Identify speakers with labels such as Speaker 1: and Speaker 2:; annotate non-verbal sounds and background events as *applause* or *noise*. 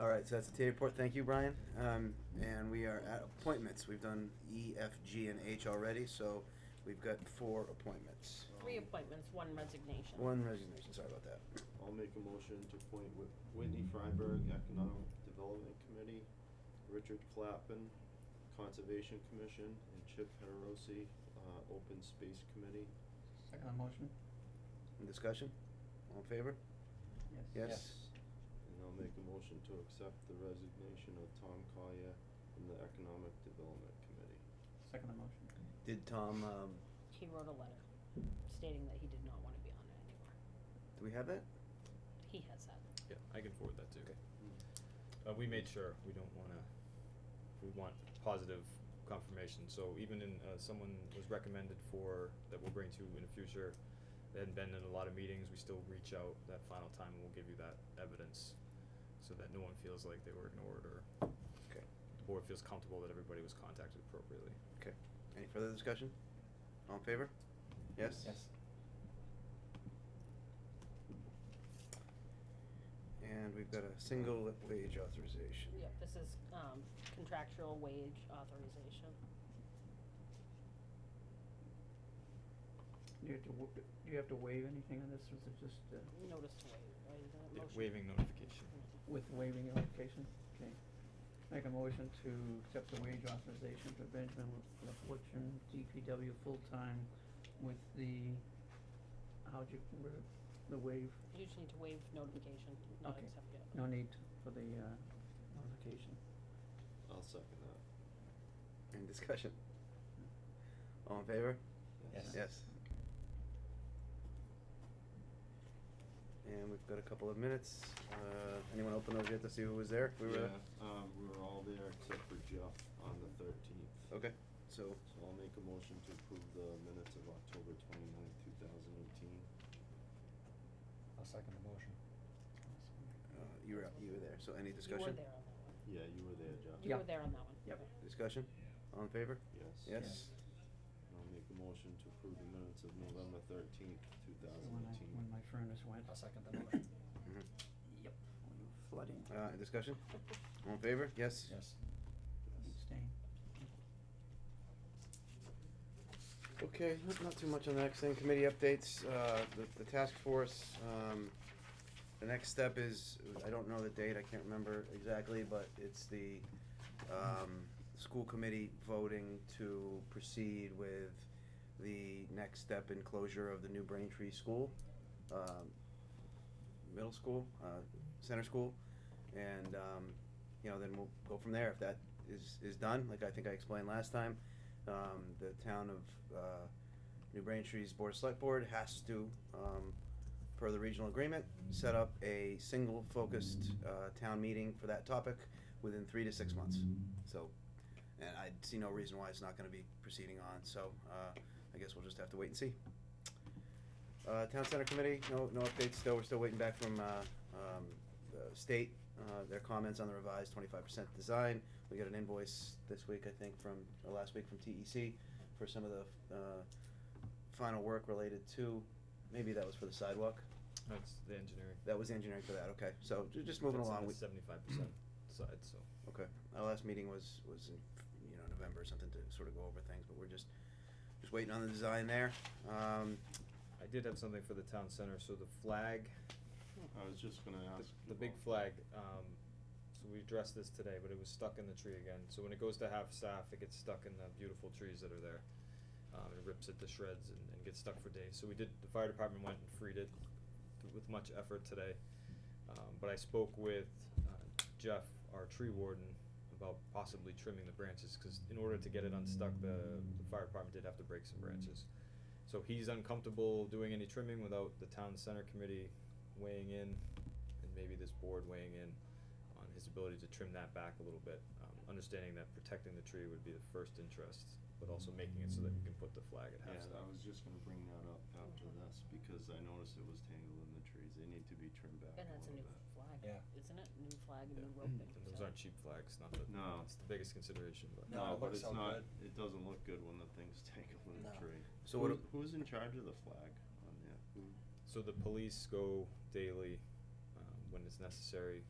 Speaker 1: All right, so that's the TA report. Thank you, Brian. Um, and we are at appointments. We've done E, F, G, and H already, so we've got four appointments.
Speaker 2: Three appointments, one resignation.
Speaker 1: One resignation, sorry about that.
Speaker 3: I'll make a motion to appoint Whit- Whitney Freiberg, Economic Development Committee, Richard Clappin, Conservation Commission, and Chip Heterosi, uh, Open Space Committee.
Speaker 4: Second motion?
Speaker 1: Any discussion? All in favor? Yes?
Speaker 3: And I'll make a motion to accept the resignation of Tom Collier from the Economic Development Committee.
Speaker 4: Second motion?
Speaker 1: Did Tom, um,
Speaker 2: He wrote a letter stating that he did not wanna be on it anymore.
Speaker 1: do we have that?
Speaker 2: He has that.
Speaker 5: Yeah, I can forward that too.
Speaker 1: Okay.
Speaker 5: Uh, we made sure we don't wanna, we want positive confirmation, so even in, uh, someone was recommended for, that we'll bring to in the future, they hadn't been in a lot of meetings, we still reach out that final time and we'll give you that evidence, so that no one feels like they were ignored or
Speaker 1: Okay.
Speaker 5: the board feels comfortable that everybody was contacted appropriately.
Speaker 1: Okay. Any further discussion? All in favor? Yes?
Speaker 4: Yes.
Speaker 1: And we've got a single wage authorization.
Speaker 2: Yep, this is, um, contractual wage authorization.
Speaker 4: Do you have to, wa- do you have to waive anything on this, or is it just uh,
Speaker 2: Notice to waive, right, is that a
Speaker 5: Yeah,
Speaker 2: motion? Mm-hmm.
Speaker 5: waiving notification.
Speaker 4: with waiving your application? Okay. Make a motion to accept the wage authorization for Benjamin La- LaFortune, DPW full-time with the, how'd you, word it? the waive,
Speaker 2: You just need to waive notification, not
Speaker 4: Okay.
Speaker 2: accept it.
Speaker 4: no need for the uh, notification.
Speaker 3: I'll second that.
Speaker 1: Any discussion? All in favor?
Speaker 4: Yes.
Speaker 1: Yes. And we've got a couple of minutes. Uh, anyone open those yet to see who was there? We were,
Speaker 3: Yeah, um, we were all there except for Jeff on the thirteenth.
Speaker 1: okay, so,
Speaker 3: So I'll make a motion to approve the minutes of October twenty-ninth, two thousand eighteen.
Speaker 6: I'll second the motion.
Speaker 1: uh, you were, you were there, so any discussion?
Speaker 2: You were there on that one.
Speaker 3: Yeah, you were there, Jeff.
Speaker 2: You
Speaker 4: Yeah.
Speaker 2: were there on that one.
Speaker 4: Yep.
Speaker 2: Okay.
Speaker 1: Discussion? All in favor?
Speaker 3: Yes.
Speaker 1: Yes?
Speaker 3: And I'll make a motion to approve the minutes of November thirteenth, two
Speaker 4: That's
Speaker 3: thousand
Speaker 4: when I,
Speaker 3: eighteen.
Speaker 4: when my furnace went.
Speaker 6: I'll second
Speaker 5: *coughs*
Speaker 6: the motion.
Speaker 1: Mhm.
Speaker 4: Yep. Flooding.
Speaker 1: Uh, discussion? All in favor? Yes?
Speaker 6: Yes.
Speaker 4: Abstain.
Speaker 1: Okay, not, not too much on the next thing, committee updates, uh, the, the task force, um, the next step is, I don't know the date, I can't remember exactly, but it's the, um, school committee voting to proceed with the next step in closure of the new Braintree School, um, middle school, uh, center school, and, um, you know, then we'll go from there, if that is, is done, like I think I explained last time, um, the town of, uh, New Braintree's Board of Select Board has to, um, per the regional agreement, set up a single focused, uh, town meeting for that topic within three to six months. So, and I see no reason why it's not gonna be proceeding on, so, uh, I guess we'll just have to wait and see. Uh, Town Center Committee, no, no updates still, we're still waiting back from, uh, um, the state, uh, their comments on the revised twenty-five percent design. We got an invoice this week, I think, from, or last week from TEC for some of the, uh, final work related to, maybe that was for the sidewalk.
Speaker 5: That's the engineering.
Speaker 1: That was engineering for that, okay, so ju- just moving
Speaker 5: That's on
Speaker 1: along,
Speaker 5: the
Speaker 1: we,
Speaker 5: Seventy-five percent side, so.
Speaker 1: okay, our last meeting was, was in, you know, November or something to sort of go over things, but we're just, just waiting on the design there. Um,
Speaker 5: I did have something for the town center, so the flag,
Speaker 3: I was just gonna
Speaker 5: the-
Speaker 3: ask.
Speaker 5: the big
Speaker 3: about-
Speaker 5: flag, um, so we addressed this today, but it was stuck in the tree again, so when it goes to half staff, it gets stuck in the beautiful trees that are there. Um, it rips it to shreds and, and gets stuck for days, so we did, the fire department went and freed it with much effort today. Um, but I spoke with, uh, Jeff, our tree warden, about possibly trimming the branches, cause in order to get it unstuck, the, the fire department did have to break some branches. So he's uncomfortable doing any trimming without the town center committee weighing in, and maybe this board weighing in on his ability to trim that back a little bit. Um, understanding that protecting the tree would be the first interest, but also making it so that we can put the flag at half
Speaker 3: Yeah, I
Speaker 5: staff.
Speaker 3: was just gonna bring that up after
Speaker 6: Uh-huh.
Speaker 3: this, because I noticed it was tangled in the trees, they need to be trimmed back a
Speaker 2: And that's a
Speaker 3: little
Speaker 2: new
Speaker 3: bit.
Speaker 2: flag,
Speaker 6: Yeah.
Speaker 2: isn't it? New flag,
Speaker 5: Yeah.
Speaker 2: new roping,
Speaker 5: And those
Speaker 2: so-
Speaker 5: aren't cheap flags, not that,
Speaker 3: No.
Speaker 5: it's the biggest consideration, but.
Speaker 6: No, it
Speaker 3: but
Speaker 6: looks
Speaker 3: it's
Speaker 6: all
Speaker 3: not,
Speaker 6: good.
Speaker 3: it doesn't look good when the thing's *laughs* tangled in the
Speaker 6: No.
Speaker 3: tree.
Speaker 1: so what,
Speaker 3: Who's- Who's in charge of the flag on there? Who?
Speaker 5: So the police go daily, um, when it's necessary,